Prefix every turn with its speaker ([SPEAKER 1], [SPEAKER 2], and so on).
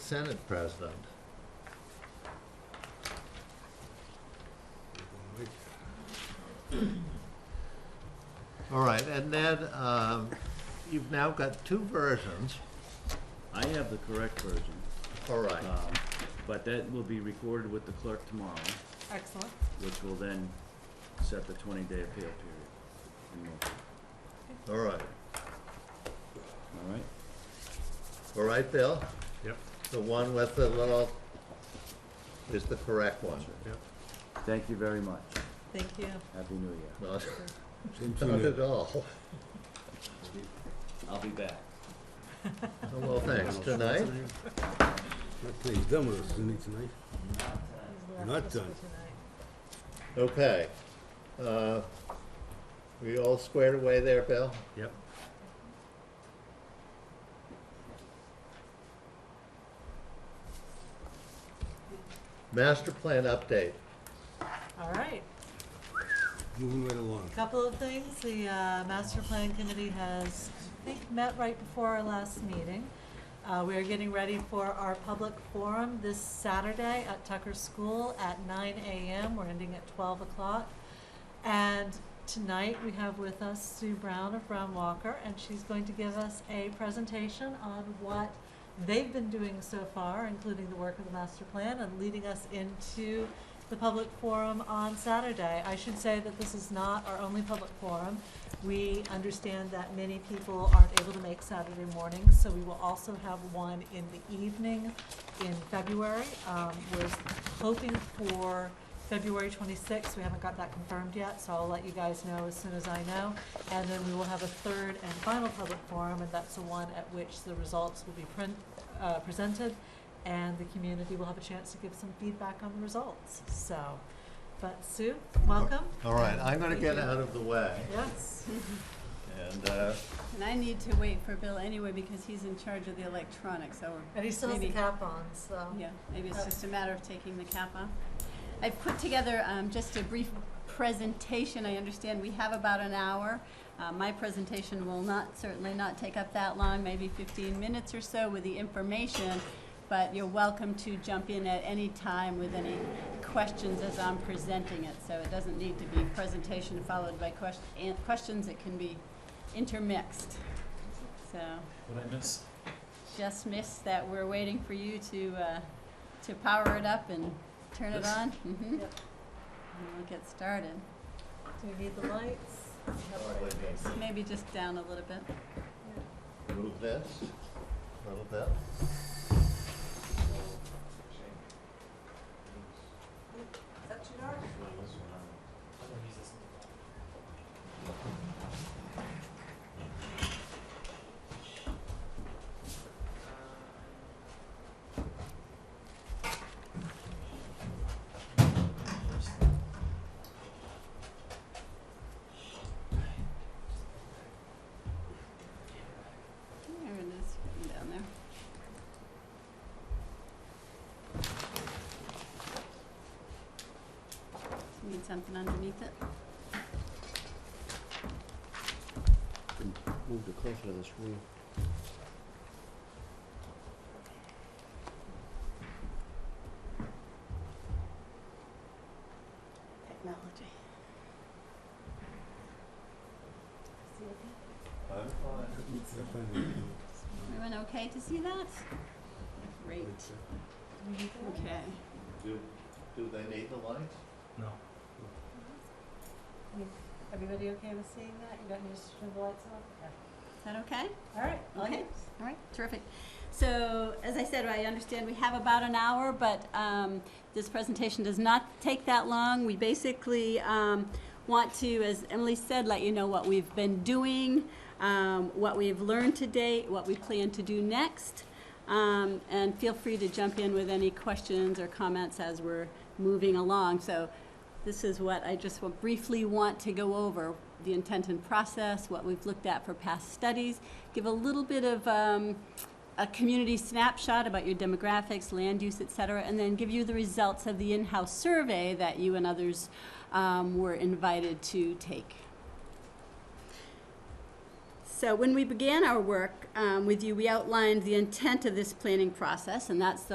[SPEAKER 1] Senate president. All right, and then, um, you've now got two versions.
[SPEAKER 2] I have the correct version,
[SPEAKER 1] All right,
[SPEAKER 2] um, but that will be recorded with the clerk tomorrow,
[SPEAKER 3] Excellent.
[SPEAKER 2] which will then set the twenty-day appeal period. in motion.
[SPEAKER 1] all right.
[SPEAKER 2] All right?
[SPEAKER 1] All right, Bill?
[SPEAKER 4] Yep,
[SPEAKER 1] The one with the little is the correct one.
[SPEAKER 4] yep.
[SPEAKER 2] Thank you very much.
[SPEAKER 3] Thank you.
[SPEAKER 2] Happy New Year.
[SPEAKER 1] Not, not at all.
[SPEAKER 2] I'll be back.
[SPEAKER 1] Well, thanks. Tonight?
[SPEAKER 5] Not till he's done with us, isn't he, tonight? Not done.
[SPEAKER 1] Okay. Uh, We all squared away there, Bill?
[SPEAKER 4] Yep.
[SPEAKER 1] Master plan update.
[SPEAKER 3] All right,
[SPEAKER 5] Moving right along.
[SPEAKER 3] couple of things. The uh, master plan committee has, I think, met right before our last meeting. Uh, We are getting ready for our public forum this Saturday at Tucker School at nine AM. We're ending at twelve o'clock. And tonight, we have with us Sue Brown of Brown Walker, and she's going to give us a presentation on what they've been doing so far, including the work of the master plan, and leading us into the public forum on Saturday. I should say that this is not our only public forum. We understand that many people aren't able to make Saturday mornings, so we will also have one in the evening in February. Um, we're hoping for February twenty-sixth, we haven't got that confirmed yet, so I'll let you guys know as soon as I know. And then we will have a third and final public forum, and that's the one at which the results will be print, uh, presented, and the community will have a chance to give some feedback on the results, so. But Sue, welcome.
[SPEAKER 1] All right, I'm gonna
[SPEAKER 6] Thank
[SPEAKER 1] get
[SPEAKER 6] you.
[SPEAKER 1] out of the way,
[SPEAKER 3] Yes,
[SPEAKER 1] and, uh,
[SPEAKER 6] And I need to wait for Bill anyway because he's in charge of the electronics, so.
[SPEAKER 3] and he still has the
[SPEAKER 6] maybe-
[SPEAKER 3] cap on, so.
[SPEAKER 6] Yeah, maybe it's just a matter of taking the cap off. I've put together um, just a brief presentation. I understand we have about an hour. Uh, My presentation will not, certainly not take up that long, maybe 15 minutes or so with the information, but you're welcome to jump in at any time with any questions as I'm presenting it. So it doesn't need to be presentation followed by ques- an- questions. It can be intermixed. So
[SPEAKER 7] What I miss?
[SPEAKER 6] just missed that we're waiting for you to, uh, to power it up and turn it on. Mm-hmm. And
[SPEAKER 3] Yep.
[SPEAKER 6] we'll get started.
[SPEAKER 3] Do we need the lights?
[SPEAKER 1] Probably need to
[SPEAKER 6] Maybe just down a little bit.
[SPEAKER 1] move this a little bit.
[SPEAKER 3] Is that too dark?
[SPEAKER 6] There it is, hidden down there. Do you need something underneath it?
[SPEAKER 2] Move it closer to the screen.
[SPEAKER 6] Technology. See it? Everyone okay to see that? Great. Okay.
[SPEAKER 1] Do, do they need the lights?
[SPEAKER 4] No.
[SPEAKER 3] Everybody okay with seeing that? You don't need to turn the lights on?
[SPEAKER 6] Is that okay?
[SPEAKER 3] All right, all
[SPEAKER 6] Okay.
[SPEAKER 3] yours.
[SPEAKER 6] All right, terrific. So, as I said, I understand we have about an hour, but um, this presentation does not take that long. We basically um, want to, as Emily said, let you know what we've been doing, um, what we've learned to date, what we plan to do next. Um, And feel free to jump in with any questions or comments as we're moving along. So this is what I just will briefly want to go over, the intent and process, what we've looked at for past studies, give a little bit of um, a community snapshot about your demographics, land use, et cetera, and then give you the results of the in-house survey that you and others um, were invited to take. So when we began our work um, with you, we outlined the intent of this planning process, and that's the